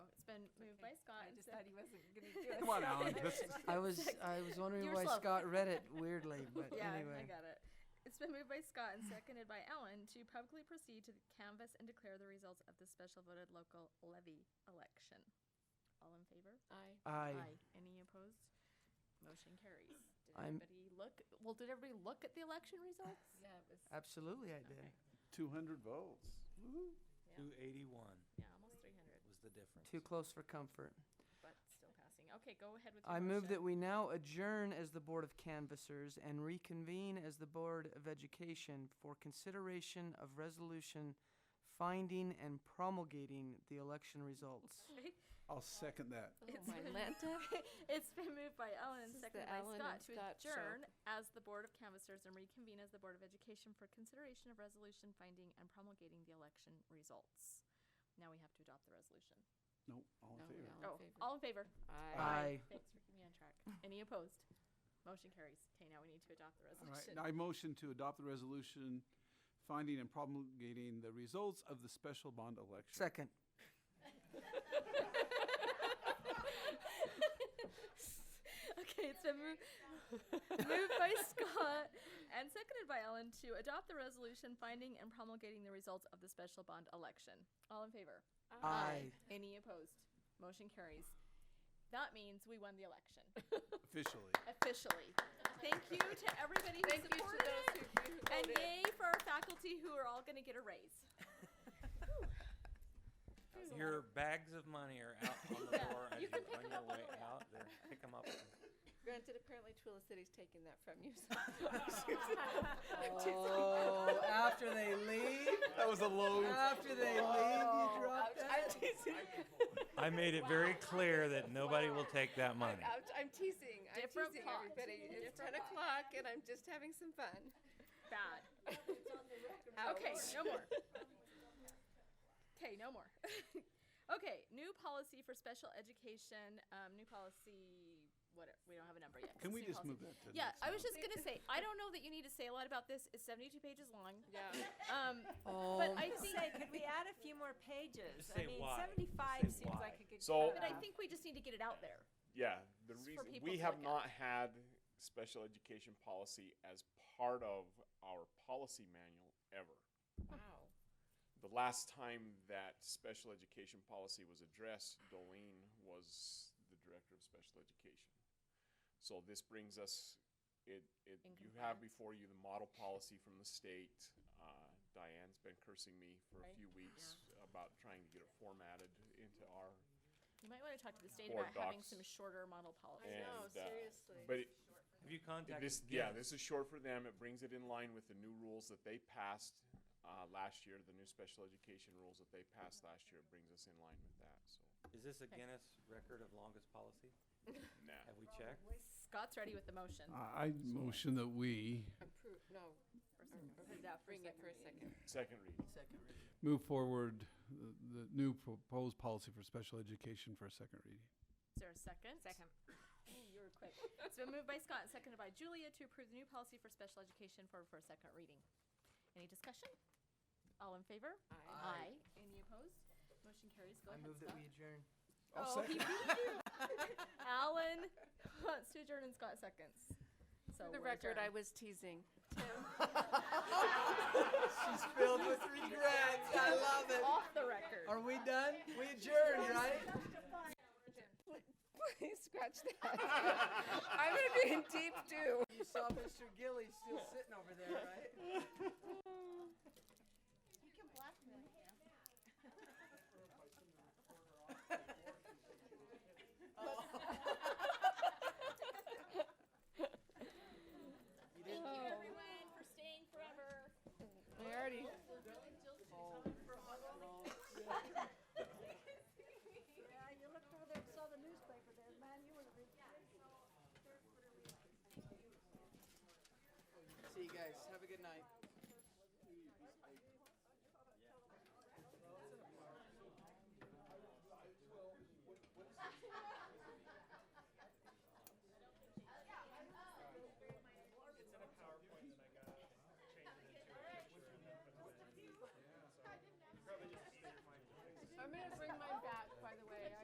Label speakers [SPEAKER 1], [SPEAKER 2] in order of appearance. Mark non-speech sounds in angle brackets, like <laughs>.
[SPEAKER 1] Moved by Scott and
[SPEAKER 2] I just
[SPEAKER 1] sec-
[SPEAKER 2] thought
[SPEAKER 1] <laughs>
[SPEAKER 2] he wasn't gonna do it.
[SPEAKER 3] Come on, Alan.
[SPEAKER 2] <laughs>
[SPEAKER 3] This is,
[SPEAKER 4] I was I was
[SPEAKER 1] You
[SPEAKER 4] wondering
[SPEAKER 1] were
[SPEAKER 4] why
[SPEAKER 1] slow.
[SPEAKER 4] Scott read it
[SPEAKER 1] <laughs>
[SPEAKER 4] weirdly, but
[SPEAKER 1] yeah, I
[SPEAKER 4] anyway.
[SPEAKER 1] got it. It's been moved by Scott and seconded by Alan to publicly proceed to canvass and declare the results of the special voted local levy election. All in favor?
[SPEAKER 2] Aye.
[SPEAKER 4] I
[SPEAKER 1] Any opposed? Motion carries. Did
[SPEAKER 4] I'm-
[SPEAKER 1] everybody look? Well, did everybody look at the election <laughs> results?
[SPEAKER 2] Yeah, it was,
[SPEAKER 4] absolutely I did.
[SPEAKER 5] 200 votes. Woo-hoo.
[SPEAKER 1] Yeah,
[SPEAKER 3] two eighty-one
[SPEAKER 1] yeah, almost three hundred,
[SPEAKER 3] was the difference.
[SPEAKER 4] Too close for comfort.
[SPEAKER 1] but still passing. Okay, go ahead with your
[SPEAKER 4] I move that
[SPEAKER 1] motion.
[SPEAKER 4] we now adjourn as the Board of Canvassers and reconvene as the Board of Education for consideration of resolution finding and promulgating the election
[SPEAKER 1] <laughs>
[SPEAKER 4] results.
[SPEAKER 5] I'll second that.
[SPEAKER 2] oh,
[SPEAKER 1] It's
[SPEAKER 2] my
[SPEAKER 1] been- <laughs>
[SPEAKER 2] Lanta.
[SPEAKER 1] It's been moved by Ellen,
[SPEAKER 2] This is the
[SPEAKER 1] seconded by
[SPEAKER 2] Ellen
[SPEAKER 1] Scott
[SPEAKER 2] and
[SPEAKER 1] to
[SPEAKER 2] Scott show.
[SPEAKER 1] adjourn as the Board of Canvassers and reconvene as the Board of Education for consideration of resolution finding and promulgating the election results. Now we have to adopt the resolution.
[SPEAKER 5] No, all in
[SPEAKER 2] No,
[SPEAKER 5] favor.
[SPEAKER 2] no. All in
[SPEAKER 1] Oh,
[SPEAKER 2] favor.
[SPEAKER 1] all in favor?
[SPEAKER 2] Aye.
[SPEAKER 4] Aye.
[SPEAKER 1] Thanks for keeping me on
[SPEAKER 2] <laughs>
[SPEAKER 1] track. Any opposed? Motion carries. Okay, now we need to adopt the
[SPEAKER 5] All right,
[SPEAKER 1] resolution.
[SPEAKER 5] now I motion to adopt the resolution finding and promulgating the results of the special bond election.
[SPEAKER 4] Second.
[SPEAKER 1] <laughs> Okay, it's been moved, moved by Scott and seconded by Ellen to adopt the resolution finding and promulgating the results of the special bond election. All in favor?
[SPEAKER 4] Aye.
[SPEAKER 1] Any opposed? Motion carries. That means we won the election
[SPEAKER 5] Officially.
[SPEAKER 1] officially. Thank you to everybody who
[SPEAKER 2] <laughs> Thank you to
[SPEAKER 1] supported
[SPEAKER 2] those
[SPEAKER 1] it.
[SPEAKER 2] who- who
[SPEAKER 1] and
[SPEAKER 2] voted.
[SPEAKER 1] yay for our faculty who are all going to get a raise.
[SPEAKER 3] Your bags of money are out on
[SPEAKER 1] <laughs>
[SPEAKER 3] the
[SPEAKER 1] Yeah,
[SPEAKER 3] floor as
[SPEAKER 1] you
[SPEAKER 3] you,
[SPEAKER 1] can pick
[SPEAKER 3] on
[SPEAKER 1] 'em
[SPEAKER 3] your
[SPEAKER 1] up on
[SPEAKER 3] way
[SPEAKER 1] the way
[SPEAKER 3] out. There, pick them up.
[SPEAKER 2] Granted, apparently Twila City's taking that from you. so-
[SPEAKER 1] <laughs>
[SPEAKER 2] <laughs>
[SPEAKER 4] Oh, after they leave,
[SPEAKER 1] <laughs>
[SPEAKER 5] That was a low.
[SPEAKER 4] after they leave,
[SPEAKER 1] Oh.
[SPEAKER 4] you drop
[SPEAKER 2] Oh, I'm teasing.
[SPEAKER 3] I made it very clear that nobody will take that money.
[SPEAKER 2] I'm, I'm teasing. I'm
[SPEAKER 1] Different
[SPEAKER 2] teasing
[SPEAKER 1] pot.
[SPEAKER 2] everybody. It's
[SPEAKER 1] Different
[SPEAKER 2] 10 o'clock and I'm just having some fun.
[SPEAKER 1] Bad.
[SPEAKER 2] Ouch.
[SPEAKER 1] <laughs> Okay, no more. Okay, no more. <laughs> okay, new policy for special education. Um, new policy. What we don't have a number yet. 'cause
[SPEAKER 5] Can
[SPEAKER 1] it's
[SPEAKER 5] we
[SPEAKER 1] new
[SPEAKER 5] just
[SPEAKER 1] policy.
[SPEAKER 5] move that to the
[SPEAKER 1] Yeah,
[SPEAKER 5] next
[SPEAKER 1] I was just gonna say. I don't know that you need to say a lot about this. It's seventy-two pages long.
[SPEAKER 2] Yeah.
[SPEAKER 6] <laughs>
[SPEAKER 1] Um, but
[SPEAKER 4] Oh,
[SPEAKER 1] I think
[SPEAKER 6] say, could we add a few more pages?
[SPEAKER 3] Just
[SPEAKER 6] I
[SPEAKER 3] say
[SPEAKER 6] mean,
[SPEAKER 3] why. Oh.
[SPEAKER 6] seventy-five
[SPEAKER 3] Just say
[SPEAKER 6] seems
[SPEAKER 3] why.
[SPEAKER 6] like a good.
[SPEAKER 7] So-
[SPEAKER 1] But I think we just need to get it out there.
[SPEAKER 7] Yeah, the
[SPEAKER 1] for
[SPEAKER 7] reason
[SPEAKER 1] people
[SPEAKER 7] we
[SPEAKER 1] to
[SPEAKER 7] have
[SPEAKER 1] look at.
[SPEAKER 7] not had special education policy as part of our policy manual ever.
[SPEAKER 2] Wow.
[SPEAKER 7] The last time that special education policy was addressed, Dolene was the director of special education. So this brings us, it, it,
[SPEAKER 1] In
[SPEAKER 7] you have
[SPEAKER 1] compliance.
[SPEAKER 7] before you the model policy from the state. Uh, Diane's been cursing me for a
[SPEAKER 1] Right.
[SPEAKER 7] few weeks about trying to get it formatted into our
[SPEAKER 1] You might want to talk to the state
[SPEAKER 7] Board
[SPEAKER 1] about having
[SPEAKER 7] docs.
[SPEAKER 1] some shorter model policies.
[SPEAKER 2] I know,
[SPEAKER 7] and, uh,
[SPEAKER 2] seriously.
[SPEAKER 7] But it,
[SPEAKER 3] Have you contacted?
[SPEAKER 7] This, yeah,
[SPEAKER 3] Gibbs?
[SPEAKER 7] this is short for them. It brings it in line with the new rules that they passed uh, last year, the new special education rules that they passed last year. It brings us in line with that, so.
[SPEAKER 3] Is this a Guinness record of longest policy?
[SPEAKER 7] Nah.
[SPEAKER 3] Have we checked?
[SPEAKER 1] Scott's ready with the motion.
[SPEAKER 6] Uh,
[SPEAKER 5] Uh, I I motion that we
[SPEAKER 2] Appro- no,
[SPEAKER 1] Put it out for
[SPEAKER 2] bring it for a
[SPEAKER 1] second.
[SPEAKER 2] second.
[SPEAKER 7] Second reading.
[SPEAKER 5] move forward the, the new proposed policy for special education for a second reading.
[SPEAKER 1] Is there a second? Second. You were quick. It's been moved by Scott and seconded by Julia to approve the new policy for special education for, for a second reading. Any discussion? All in favor? Aye. Aye. Any opposed? Motion carries. Go
[SPEAKER 4] I
[SPEAKER 1] ahead,
[SPEAKER 4] move that
[SPEAKER 1] Scott.
[SPEAKER 4] we adjourn.
[SPEAKER 1] Oh, he beat you. Alan <laughs> wants to adjourn and Scott seconds. So
[SPEAKER 2] For the
[SPEAKER 1] we're
[SPEAKER 2] record, I
[SPEAKER 1] adjourned.
[SPEAKER 2] was teasing.
[SPEAKER 1] <laughs>
[SPEAKER 4] <laughs> She's filled with regrets. I love it.
[SPEAKER 1] Off the record.
[SPEAKER 4] Are we done? We adjourned, right?
[SPEAKER 2] Please scratch that. <laughs> I'm going to be in deep doo.
[SPEAKER 4] You saw Mr. Gilly still sitting over there, right?
[SPEAKER 1] <laughs>
[SPEAKER 4] <laughs> Oh,
[SPEAKER 1] Thank you, everyone, for staying forever.
[SPEAKER 2] I already.
[SPEAKER 8] Yeah, you looked over there and saw the newspaper there, man, you would have been.
[SPEAKER 4] See you guys. Have a good night.